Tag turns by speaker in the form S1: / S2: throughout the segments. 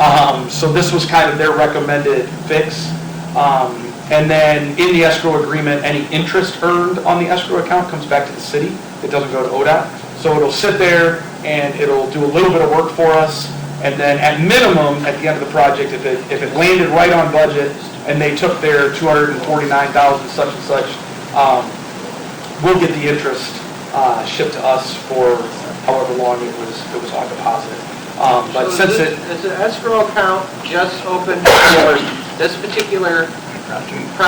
S1: Um, So this was kind of their recommended fix. Um, And then in the escrow agreement, any interest earned on the escrow account comes back to the city. It doesn't go to ODOT. So it'll sit there and it'll do a little bit of work for us. And then at minimum, at the end of the project, if it, if it landed right on budget and they took their 249,000 such and such, um, we'll get the interest uh, shipped to us for however long it was, it was on deposit. Um, But
S2: So
S1: since
S2: is
S1: it.
S2: this- Is the escrow account just open for this particular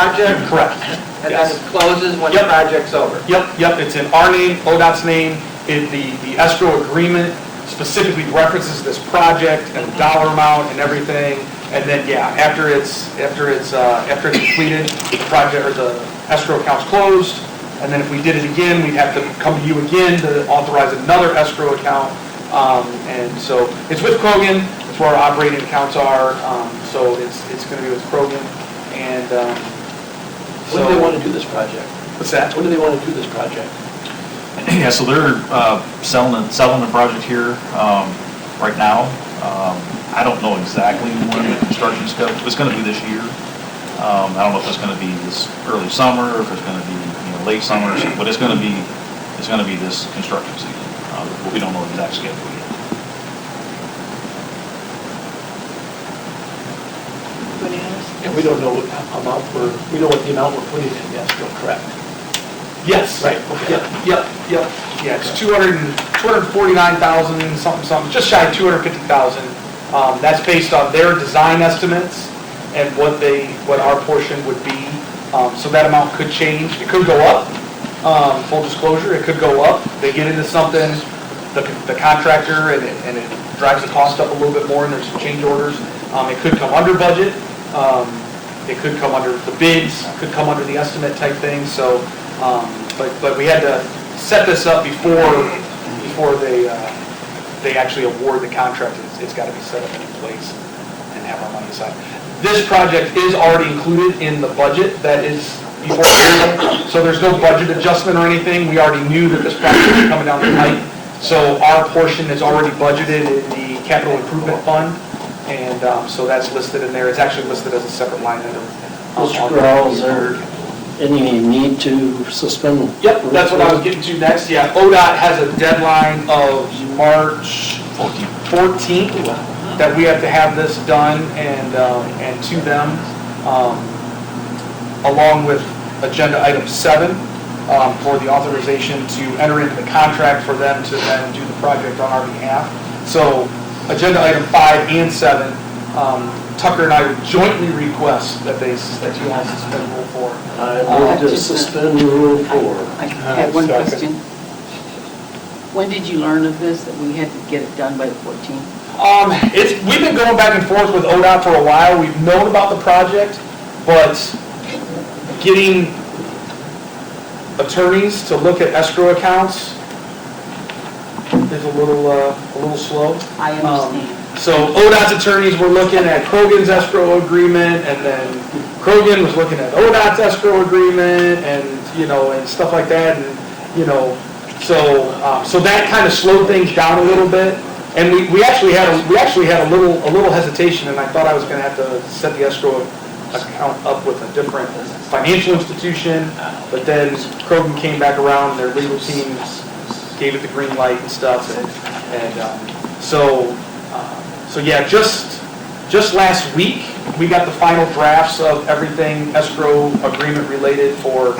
S2: project?
S1: Correct.
S2: And then
S1: Yes.
S2: it closes when the
S1: Yep.
S2: project's over?
S1: Yep, yep, it's in our name, ODOT's name, it, the, the escrow agreement specifically references this project and the dollar amount and everything. And then, yeah, after it's, after it's, uh, after it's completed, the project, or the escrow account's closed. And then if we did it again, we'd have to come to you again to authorize another escrow account. Um, and so it's with Krogan, it's where our operating accounts are, um, so it's, it's gonna be with Krogan and, um, so.
S3: When do they want to do this project?
S1: What's that?
S3: When do they want to do this project?
S4: Yeah, so they're uh, selling, the- selling the project here um, right now. Um, I don't know exactly when the construction stuff, it's going to be this year. Um, I don't know if it's going to be this early summer, or if it's going to be, you know, late summer, or something, but it's going to be, it's going to be this construction season. Uh, But we don't know the exact schedule yet.
S3: And we don't know what amount we're, we know what the amount we're putting in, yes, still correct.
S1: Yes.
S3: Right, okay.
S1: Yep, yep, yep. Yeah, it's 200, and- 249,000, something, something, just shy of 250,000. Um, That's based on their design estimates and what they, what our portion would be. Um, So that amount could change. It could go up, Um, full disclosure, it could go up. They get into something, the the contractor, and it and it drives the cost up a little bit more, and there's some change orders. Um, It could come under budget. Um, it could come under the bids, could come under the estimate type thing, so, um, but, but we had to set this up before, before they, uh, they actually award the contract, It's- it's got to be set up and in place and have our money aside. This project is already included in the budget that is before, you, so there's no budget adjustment or anything, we already knew that this project was coming down the pipe, so our portion is already budgeted in the capital improvement fund, and um, so that's listed in there, it's actually listed as a separate line item. Um,
S5: Mr. Corral, is there any need to suspend?
S1: Yep, that's what I was getting to next, yeah, ODOT has a deadline of March
S4: 14.
S1: 14th that we have to have this done and, um, and to them, um, along with agenda item seven, um, for the authorization to enter into the contract for them to then do the project on our behalf. So agenda item five and seven, um, Tucker and I would jointly request that they, that you all suspend rule four.
S5: I move to suspend rule four.
S3: Uh,
S6: I had one question. When did you learn of this, that we had to get it done by the 14th?
S1: Um, it's, we've been going back and forth with ODOT for a while. We've known about the project, but getting attorneys to look at escrow accounts is a little, uh, a little slow.
S6: I understand.
S1: So ODOT's attorneys were looking at Krogan's escrow agreement, and then Krogan was looking at ODOT's escrow agreement, and, you know, and stuff like that, and, you know, so, uh, so that kind of slowed things down a little bit. And we, we actually had, a we actually had a little, a little hesitation, and I thought I was gonna have to set the escrow account up with a different financial institution, but then Krogan came back around, their legal teams gave it the green light and stuff, and, and, um, so, uh, so yeah, just, just last week, we got the final drafts of everything escrow agreement related for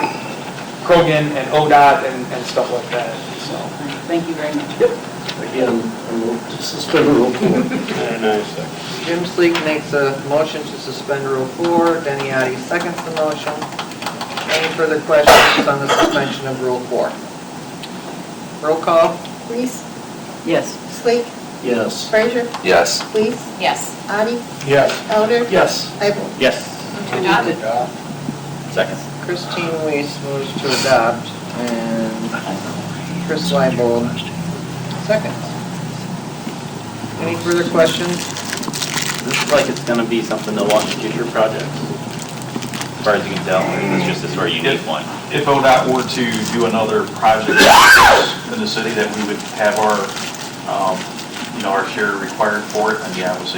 S1: Krogan and ODOT and, and stuff like that, so.
S6: Thank you very much.
S5: Again, I move to suspend rule four.
S2: Jim Sleek makes a motion to suspend Rule 4, Denny Addy seconds the motion. Any further questions on the suspension of Rule 4? Roll call?
S7: Reese,
S6: Yes.
S7: Sleek,
S5: Yes.
S7: Frazier,
S3: Yes.
S7: Lees,
S8: Yes.
S7: Audi,
S3: Yes.
S7: Elder,
S3: Yes.
S7: Ivel.
S4: Yes.
S8: Adopted.
S4: Second.
S2: Christine Weiss moves to adopt, and Chris Leibold seconds. Any further questions?
S9: This is like it's gonna be something they'll watch in future projects, as far as you can tell, it's just a sort of unique one.
S4: If ODOT were to do another project like this in the city, that we would have our, um, you know, our share required for it, and yeah, I would say